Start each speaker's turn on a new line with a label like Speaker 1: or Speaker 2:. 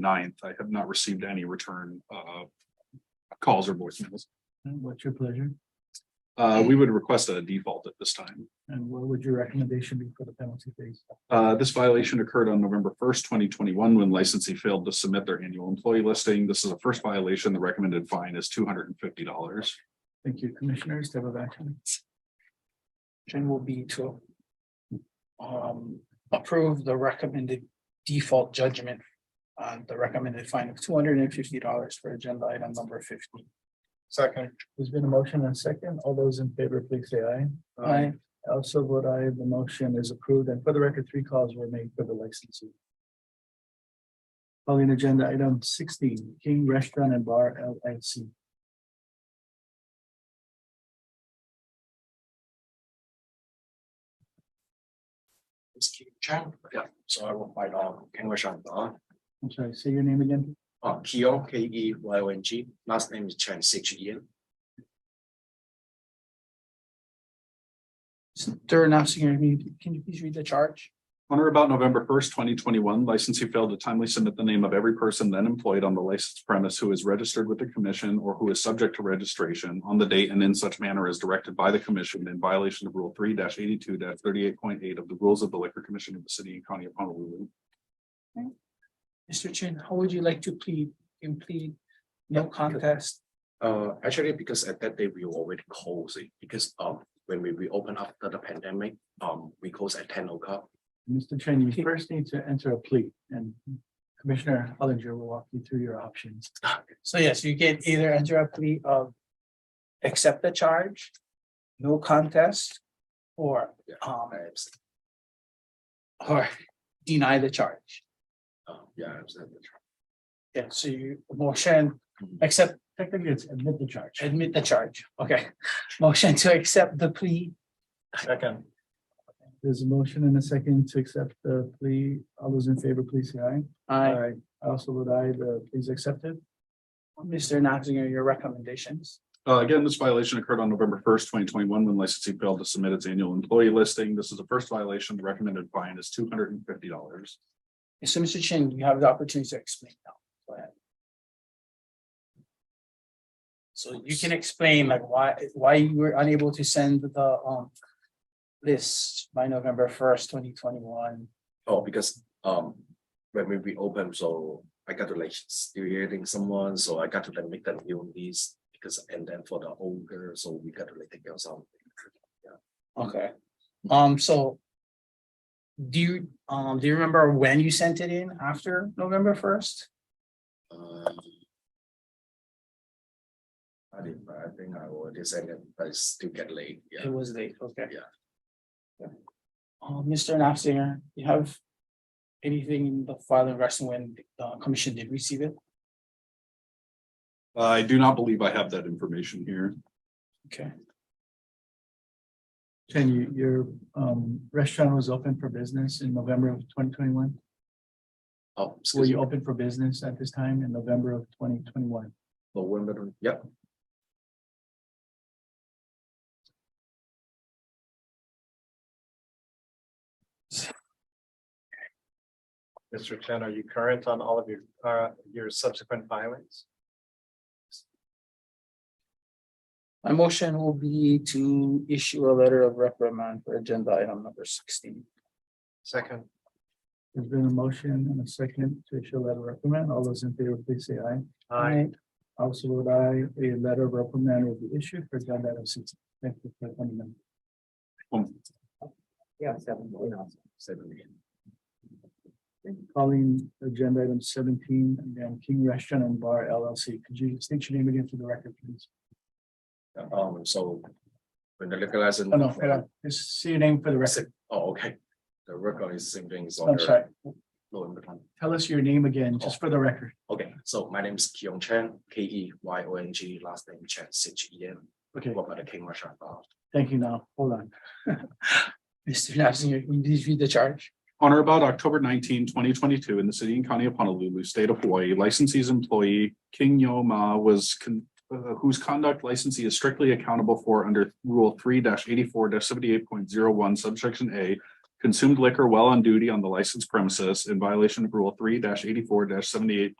Speaker 1: 9th. I have not received any return uh calls or voicemails.
Speaker 2: And what's your pleasure?
Speaker 1: Uh, we would request a default at this time.
Speaker 2: And what would your recommendation be for the penalty phase?
Speaker 1: Uh, this violation occurred on November first, twenty twenty-one, when licensee failed to submit their annual employee listing. This is a first violation. The recommended fine is two hundred and fifty dollars.
Speaker 2: Thank you, commissioners, step of action.
Speaker 3: Action will be to. Um, approve the recommended default judgment. On the recommended fine of two hundred and fifty dollars for agenda item number fifteen.
Speaker 2: Second. There's been a motion and second. All those in favor, please say aye.
Speaker 3: Aye.
Speaker 2: I Also vote aye. The motion is approved and for the record, three calls were made for the licensee. Calling agenda item sixteen, King Restaurant and Bar LLC.
Speaker 4: It's King Chan. Yeah. So I will find out English on the,
Speaker 2: I'm sorry, say your name again.
Speaker 4: uh, Keo, K E Y O N G, last name is Chan, H E N.
Speaker 3: They're announcing, your name. can you please read the charge?
Speaker 1: On or about November first, twenty twenty-one, licensee failed to timely submit the name of every person then employed on the licensed premise who is registered with the commission or who is subject to registration on the date and in such manner as directed by the commission in violation of Rule three eighty-two thirty-eight point eight of the Rules of the Liquor Commission of the City and County of Honolulu.
Speaker 3: Mr. Chin, how would you like to plead, You plead, no contest?
Speaker 4: Uh, actually, because at that day we were already closing, because, um, when we reopened after the pandemic, um, we closed at ten o'clock.
Speaker 2: Mr. Chen, you first need to enter a plea and Commissioner Hollinger will walk you through your options.
Speaker 3: So yes, you can either enter a plea of. Accept the charge, no contest, or um,
Speaker 4: I abs-
Speaker 3: or deny the charge.
Speaker 4: uh, Yeah, I abstained.
Speaker 3: Yeah, so you motion, accept,
Speaker 2: Technically, it's admit the charge.
Speaker 3: admit the charge, okay. Motion to accept the plea,
Speaker 2: Second. There's a motion and a second to accept the plea. All those in favor, please say aye.
Speaker 3: uh,
Speaker 2: I also would I, the please accepted.
Speaker 3: Mr. Noxinger, your recommendations.
Speaker 1: Uh, again, this violation occurred on November first, twenty twenty-one, when licensee failed to submit its annual employee listing. This is the first violation. The recommended fine is two hundred and fifty dollars.
Speaker 3: So, Mr. Chin, you have the opportunity to explain now, go ahead. So you can explain like why, why you were unable to send the um. List by November first, twenty twenty-one,
Speaker 4: Oh, because, um, when we reopened, so I got to like still hearing someone, so I got to like make that new list. Because, and then for the older, so we got to like take out some.
Speaker 3: okay, um, so. Do you, um, do you remember when you sent it in after November first?
Speaker 4: Um, I did, but I think I will send it, but it's still get late, yeah.
Speaker 3: It was late, okay.
Speaker 4: Yeah.
Speaker 3: Yeah. Uh, Mr. Nafziger, you have anything in the file in wrestling when the commission did receive it?
Speaker 1: I do not believe I have that information here.
Speaker 3: Okay,
Speaker 2: Chen, you, your um restaurant was open for business in November of twenty twenty-one.
Speaker 4: Oh,
Speaker 2: Were
Speaker 4: excuse
Speaker 2: you
Speaker 4: me,
Speaker 2: open for business at this time in November of twenty twenty-one?
Speaker 4: November, yep,
Speaker 5: Mr. Chen, are you current on all of your, uh, your subsequent filings?
Speaker 3: my motion will be to issue a letter of reprimand for agenda item number sixteen.
Speaker 5: Second,
Speaker 2: There's been a motion and a second to issue a letter of reprimand. All those in favor, please say aye.
Speaker 5: I,
Speaker 2: Also would I, a letter of reprimand will be issued for agenda item sixteen. Thank you for coming in.
Speaker 1: Um,
Speaker 4: seven million.
Speaker 2: Calling agenda item seventeen, again, King Restaurant and Bar LLC. Could you state your name again for the record, please?
Speaker 4: Um, so. When the liquor license.
Speaker 2: Oh, No, no, hold on. just say your name for the record.
Speaker 4: Oh, okay, the record is same thing, is on
Speaker 2: I'm
Speaker 4: the
Speaker 2: sorry.
Speaker 4: November 20.
Speaker 2: Tell us your name again, just for the record.
Speaker 4: Okay, so my name is Keong Chen, K E Y O N G, last name Chen, H E N,
Speaker 2: Okay,
Speaker 4: what about the King Russian? Uh,
Speaker 2: thank you now. Hold on.
Speaker 3: Mr. Nafziger, you did read the charge?
Speaker 1: On or about October 19, 2022, in the city and county of Honolulu, state of Hawaii, licensee's employee King Yo Ma was con- uh, whose conduct licensee is strictly accountable for under Rule three eighty-four seventy-eight point zero one subsection A consumed liquor while on duty on the licensed premises in violation of Rule three eighty-four seventy-eight